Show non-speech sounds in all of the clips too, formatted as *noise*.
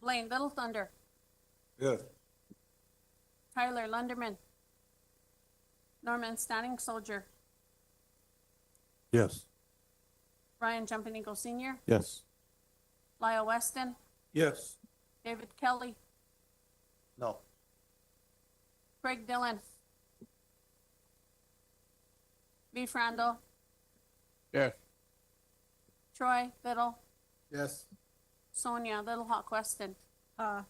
Blaine Little Thunder, Yes. Tyler Lunderman, Norman Standing Soldier, Yes. Ryan Jumping Eagle Senior, Yes. Lyle Weston, Yes. David Kelly, No. Craig Dillon, V. Frandl, Yes. Troy Little, Yes. Sonia Little Hawk Weston, Uh,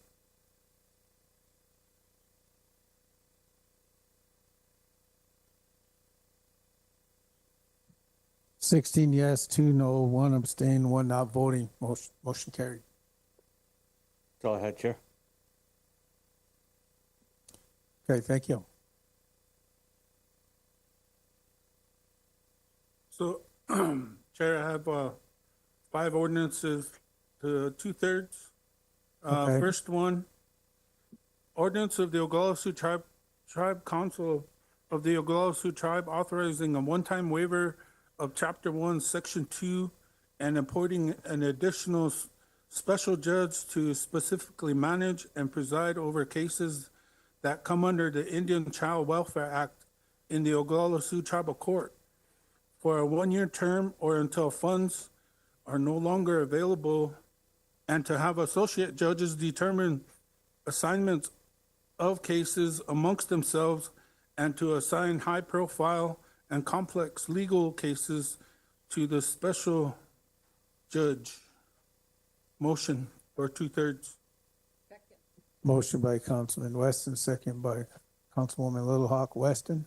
Sixteen yes, two no, one abstain, one not voting. Motion, motion carried. That's all I had, Chair. Okay, thank you. So, *clears throat* Chair, I have uh, five ordinances to two-thirds. Uh, Okay. First one, ordinance of the Oglala Sioux Tribe, Tribe Council of the Oglala Sioux Tribe authorizing a one-time waiver of Chapter One, Section Two, and appointing an additional s- special judge to specifically manage and preside over cases that come under the Indian Child Welfare Act in the Oglala Sioux Tribal Court for a one-year term or until funds are no longer available, and to have associate judges determine assignments of cases amongst themselves and to assign high-profile and complex legal cases to the special judge. Motion for two-thirds. Motion by Councilman Weston, second by Councilwoman Little Hawk Weston.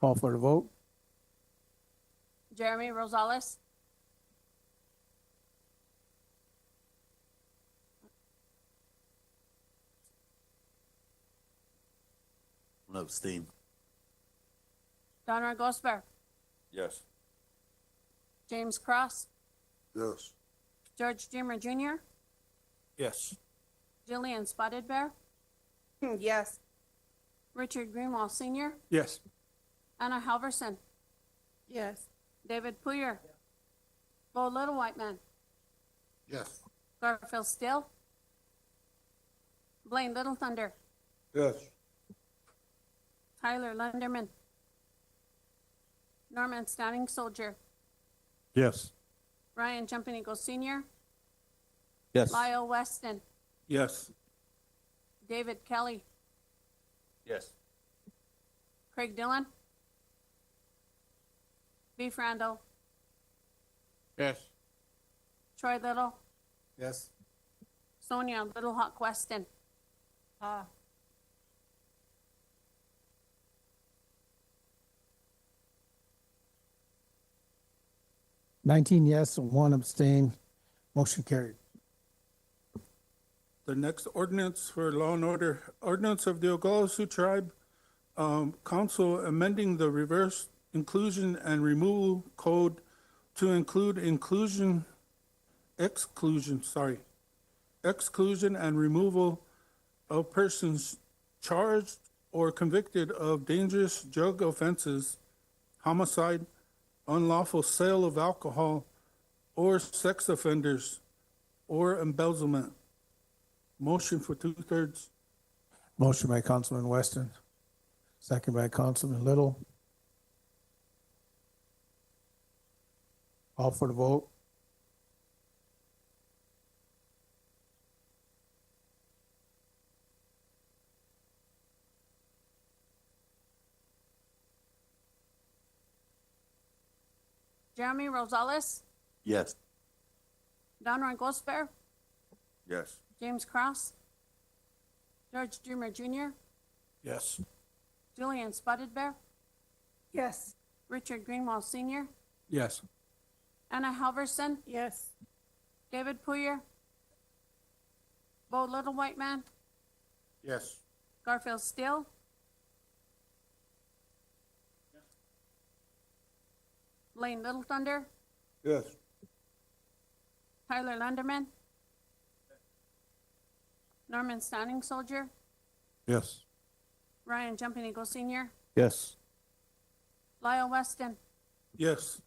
Call for the vote. Jeremy Rosales, Abstain. Donra Gosper, Yes. James Cross, Yes. George Dreamer Junior, Yes. Jillian Spotted Bear, yes, Richard Greenwall Senior, Yes. Anna Halverson, yes, David Poyer, Bo Little White Man, Yes. Garfield Still, Blaine Little Thunder, Yes. Tyler Lunderman, Norman Standing Soldier, Yes. Ryan Jumping Eagle Senior, Yes. Lyle Weston, Yes. David Kelly, Yes. Craig Dillon, B. Frandl, Yes. Troy Little, Yes. Sonia Little Hawk Weston, uh, Nineteen yes, one abstain. Motion carried. The next ordinance for law and order, ordinance of the Oglala Sioux Tribe um, Council amending the reverse inclusion and removal code to include inclusion, exclusion, sorry, exclusion and removal of persons charged or convicted of dangerous drug offenses, homicide, unlawful sale of alcohol, or sex offenders, or embezzlement. Motion for two-thirds. Motion by Councilman Weston, second by Councilman Little. Call for the vote. Jeremy Rosales, Yes. Donroy Gosper, Yes. James Cross, George Dreamer Junior, Yes. Julian Spotted Bear, yes, Richard Greenwall Senior, Yes. Anna Halverson, yes, David Poyer, Bo Little White Man, Yes. Garfield Still, Blaine Little Thunder, Yes. Tyler Lunderman, Norman Standing Soldier, Yes. Ryan Jumping Eagle Senior, Yes. Lyle Weston, Yes.